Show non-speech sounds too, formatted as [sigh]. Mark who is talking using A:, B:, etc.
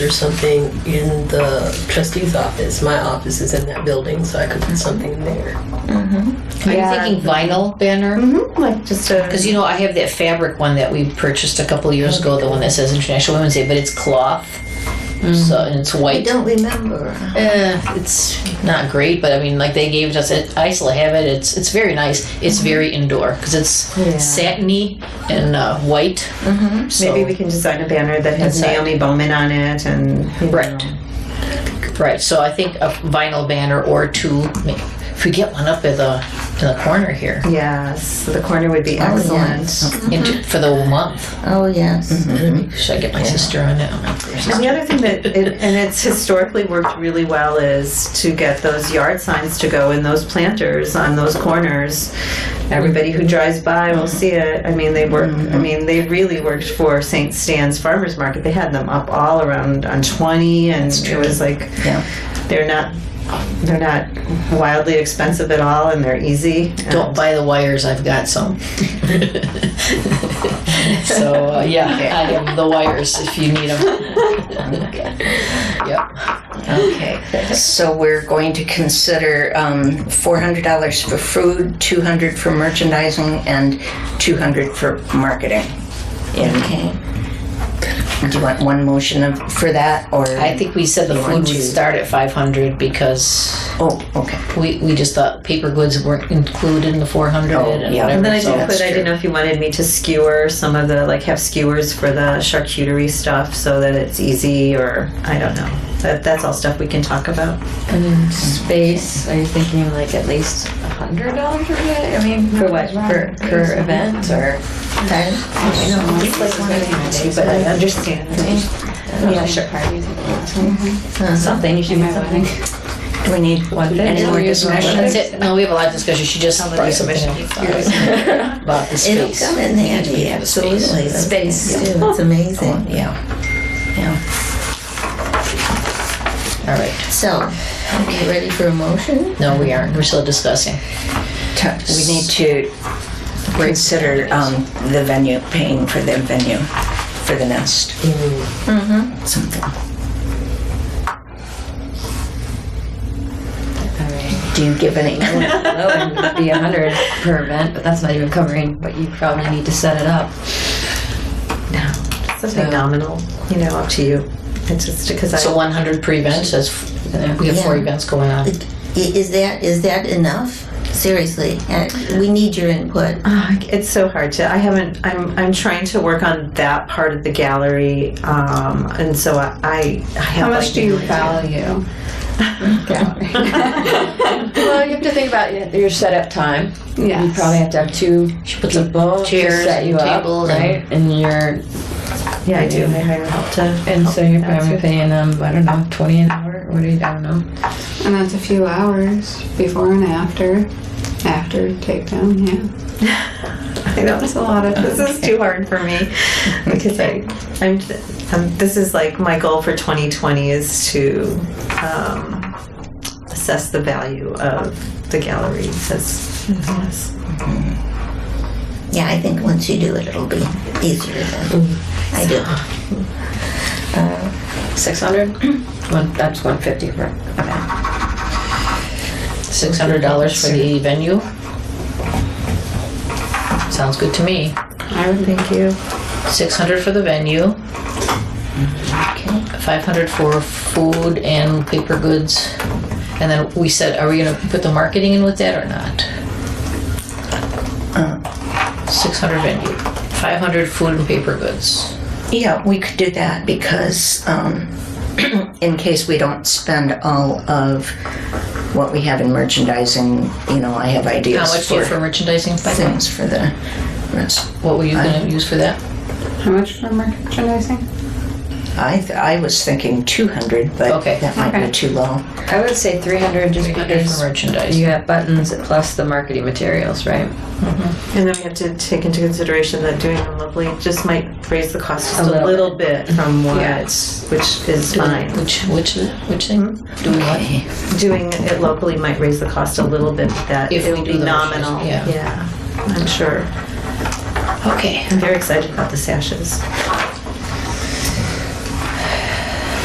A: or something in the trustee's office. My office is in that building, so I could put something in there.
B: Are you
C: Yeah.
B: thinking vinyl banner?
D: Mm-hmm.
C: Like just a
B: Because you know, I have that fabric one that we purchased a couple years ago, the one that says International Women's Day, but it's cloth.
D: Mm.
B: So and it's
C: I
B: white.
C: don't remember.
B: Eh, it's not great, but I mean, like they gave us it. I still have it. It's it's very nice. It's
C: Mm-hmm.
B: very indoor because it's
C: Yeah.
B: satiny and uh, white. Mm-hmm. So,
D: Maybe we can design a banner that has
B: Inside.
D: Naomi Bowman on it and you know.
B: Right. right. So I think a vinyl banner or two. ma- If we get one up in the in the corner here,
D: Yes, the corner would
B: Oh,
D: be
C: yeah.
D: excellent.
C: Mm-hmm.
B: into, for the month,
C: Oh yes.
B: should I get my sister on it?
D: And the other thing that, it, and it's historically worked really well, is to get those yard signs to go in those planters on those corners. Everybody who drives by will see it. I mean, they work. I mean, they really worked for St. Stan's Farmers Market. They had them up all around on 20, and it was like
C: Yeah.
D: they're not they're not wildly expensive at all, and they're easy.
B: Don't buy the wires. I've got
C: [laughs]
B: some. so uh, yeah, I have the wires if you need them. yep.
C: Okay, so we're going to consider um, $400 for food, 200 for merchandising, and 200 for marketing. Okay. Do you want one motion of- for that, or?
B: I think we said the
C: want
B: food would
C: to-
B: start at 500 because
C: Oh, okay.
B: we, we just thought paper goods weren't included in the 400
C: Oh,
B: and
C: yeah.
B: whatever.
D: And then I
B: so-
D: did put, I didn't know if you wanted me to skewer some of the, like have skewers for the charcuterie stuff so that it's easy or, I don't know. That, that's all stuff we can talk about.
E: And in space, are you thinking like at least a hundred dollars per day? I mean,
C: For what? For-
E: per event or?
D: But I understand.
E: Yeah, sure. Something, you should have
C: Do we need any more
B: That's
C: discussion?
B: it. No, we have a lot of discussion. She just brought something up about, [laughs] about the
C: It'll
B: space.
C: come in handy, absolutely.
E: Space,
C: too, it's amazing. Oh, Yeah, yeah.
B: All right.
C: So, are you ready for a motion?
B: No, we aren't. We're still discussing.
C: We need to consider um, the venue, paying for the venue, for the nest. Something. Do you give any? [laughs]
E: It'd be a hundred per event, but that's not even covering, but you probably need to set it up.
D: Something nominal, you know, up to you. It's just because
B: So
D: I,
B: 100 pre events. That's we have four
C: Yeah.
B: events going on.
C: I- Is that, is that enough? Seriously, uh, we need your input.
D: Ah, it's so hard to, I haven't, I'm, I'm trying to work on that part of the gallery. Um, and so I, I I have.
F: How
D: like,
F: much do
D: no
F: you
D: idea.
F: value?
E: Well, you have to think about your- your setup time.
F: Yes.
E: You probably have to have two
B: puts up
E: people to
B: chairs
E: set you
B: and
E: up,
B: tables and-
E: right? And you're,
D: Yeah, I do. I hire help to.
E: and so you're probably
D: good.
E: paying them, I don't know, twenty an hour, what do you, I don't know.
F: And that's a few hours before and after. After takedown, yeah.
D: I know it's a lot of. This is too hard for me because I, I'm, I'm. This is like my goal for 2020 is to um, assess the value of the gallery. As, as-
C: Yeah, I think once you do it, it'll be easier than, I do.
E: Six hundred? One, that's one fifty per event.
B: $600 for the venue. Sounds good to me.
D: I would thank you.
B: 600 for the venue. 500 for food and paper goods. And then we said, are we gonna put the marketing in with that or not?
E: Uh-huh.
B: 600 venue, 500 food and paper goods.
C: Yeah, we could do that because um, [clears throat] in case we don't spend all of what we have in merchandising, you know, I have
B: How
C: ideas
B: much do you
C: for,
B: have for merchandising?
C: things for the rest.
B: What were you
E: Uh-huh.
B: gonna use for that?
F: How much for merchandising?
C: I th- I was thinking 200, but
B: Okay.
C: that might be
F: Okay.
C: too low.
E: I would say three hundred just
B: 300 for
E: because
B: merchandise.
E: you have buttons plus the marketing materials, right?
D: And then we have to take into consideration that doing them locally just might raise the cost just
E: A
D: a little,
E: little
D: bit from what,
F: Yeah.
D: which is fine.
B: Which, which, which thing?
E: Mm-hmm.
B: Do we want?
D: doing it locally might raise the cost a little bit, but that
B: If
D: it
B: we
D: will
B: do
D: be
B: the merchandise,
D: nominal.
B: yeah.
D: yeah, I'm sure.
B: Okay.
D: I'm very excited about the sashes.